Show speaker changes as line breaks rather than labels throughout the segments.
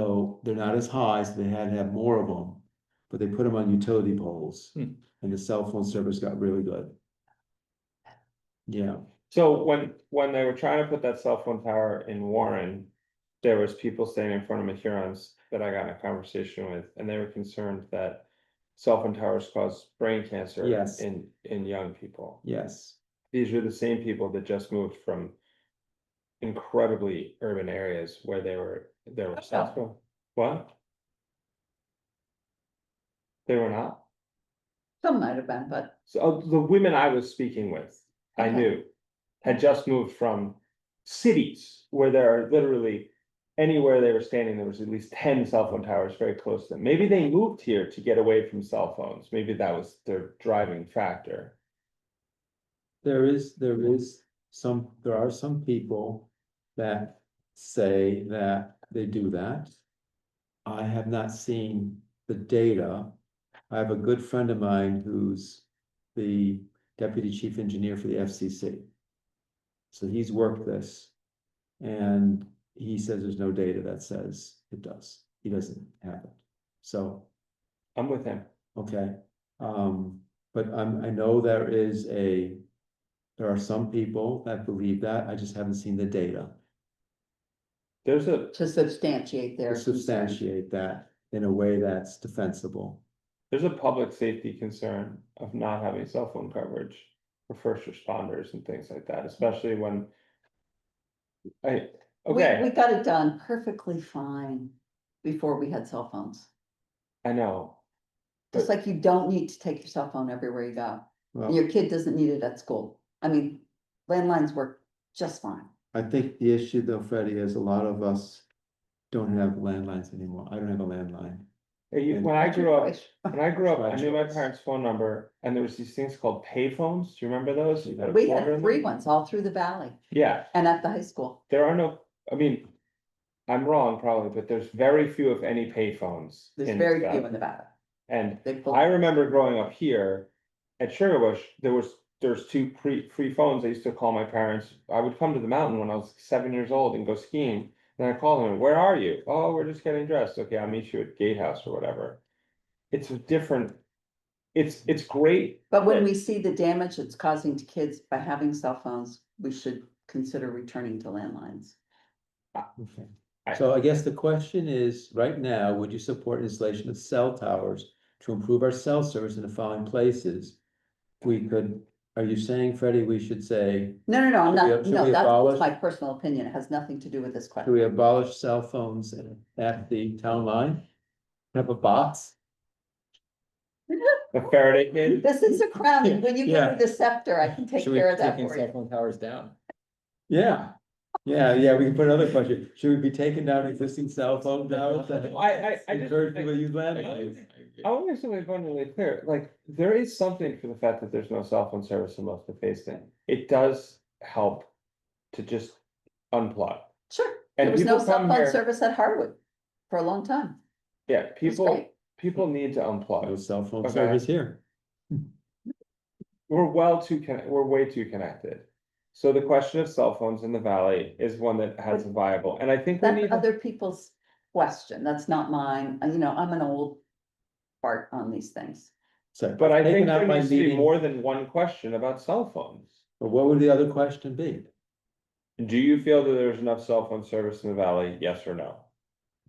so they're not as high, so they had to have more of them. But they put them on utility poles
Hmm.
and the cell phone service got really good. Yeah,
So when, when they were trying to put that cell phone tower in Warren. There was people standing in front of my Hurons that I got in a conversation with, and they were concerned that. Cell phone towers cause brain cancer.
Yes.
In, in young people.
yes,
These are the same people that just moved from. Incredibly urban areas where they were, there were cell phone, what? They were not,
Some might have been, but
so uh, the women I was speaking with, I
Okay.
knew, had just moved from cities where there are literally anywhere they were standing, there was at least ten cell phone towers very close to them. Maybe they moved here to get away from cell phones. Maybe that was their driving factor.
there is, there is some, there are some people that say that they do that. I have not seen the data. I have a good friend of mine who's the deputy chief engineer for the FCC. So he's worked this. And he says there's no data that says it does. He doesn't have it. So
I'm with him.
Okay, um, but I'm, I know there is a, there are some people that believe that, I just haven't seen the data
There's a,
to substantiate
to
their. concern.
substantiate that in a way that's defensible.
there's a public safety concern of not having cell phone coverage for first responders and things like that, especially when I,
We-
okay.
We got it done perfectly fine before we had cell phones.
I know.
Just like you don't need to take your cell phone everywhere you go. and
Well,
Your kid doesn't need it at school. I mean, landlines work just fine.
I think the issue though, Freddie, is a lot of us don't have landlines anymore, I don't have a landline.
Uh, you-
And-
When I grew up, when I grew up,
Right.
I knew my parents' phone number and there was these things called payphones. Do you remember those? You put a
We
quarter
had
in
three
them?
ones all through the valley
Yeah,
and at the high school.
there are no, I mean, I'm wrong probably, but there's very few if any payphones.
There's
in
very
Scott-
few in the valley.
And
They pull-
I remember growing up here at Sugar Bush, there was, there's two pre, free phones. I used to call my parents. I would come to the mountain when I was seven years old and go skiing. Then I called them, where are you? Oh, we're just getting dressed. Okay, I'll meet you at Gatehouse or whatever. It's a different, it's, it's great.
But when we see the damage it's causing to kids by having cell phones, we should consider returning to landlines.
Okay.
I-
So I guess the question is, right now, would you support installation of cell towers to improve our cell service in the following places? We could, are you saying, Freddie, we should say
No, no, no, I'm
Should we-
not,
should
no,
we
that's
abolish-
my personal opinion. It has nothing to do with this
Do
question.
we abolish cell phones at the town line? Have a box?
The Faraday kid,
This is a crown.
Yeah,
When you give
yeah.
me the scepter, I can take
Should we
care of that
taking
for
cell
you.
phone towers down?
Yeah, yeah, yeah, we can put another question. Should we be taking down existing cell phone towers? that
I, I, I just.
Encourage people to use
I-
landlines?
I
I-
want to make something abundantly clear, like, there is something for the fact that there's no cell phone service in most of Facein. It does help to just unplug.
Sure. There
And
was no
people
cell
come
phone
here,
service at Harwood for a long time.
yeah,
It was
people,
great.
people need to
No
unplug.
cell phone
Okay.
service here.
We're well too, con- we're way too connected. So the question of cell phones in the valley is one that has a viable, and I think we need,
That's other people's question. That's not mine. And, You know, I'm an old fart on these things.
So,
but I think
taken out
there
by
needs to be
meeting-
more than one question about cell phones.
But what would the other question be?
Do you feel that there's enough cell phone service in the valley, yes or no?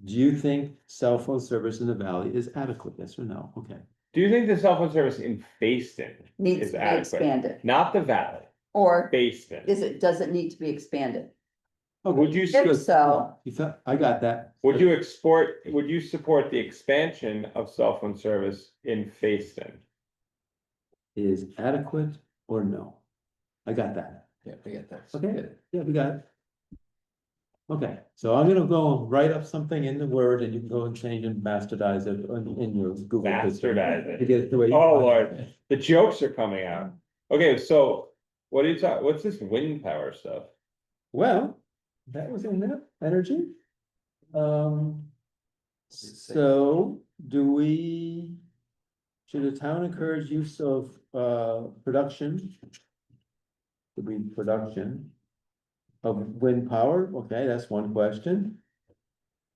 Do you think cell phone service in the valley is adequate? Yes or no? Okay.
Do you think the cell phone service in Facein Is
Needs to be
adequate.
expanded.
Not the valley,
Or
Facein.
is it, does it need to be expanded?
Would you,
If
s-
so,
You thought, I got that.
would you export, would you support the expansion of cell phone service in Facein?
Is adequate or no? I got that.
Yeah, we get that.
Okay, yeah, we got it. Okay, so I'm gonna go write up something in the Word and you can go and change and bastardize it in, in your Google. system
Bastardize
To
it.
get it the way. you
Oh,
want it.
Lord, the jokes are coming out. Okay, so what are you talking, what's this wind power stuff?
Well, that was in that energy. Um,
Let's see.
so do we? Should the town encourage use of, uh, production? To be production. Of wind power, okay, that's one question.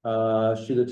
Uh, should the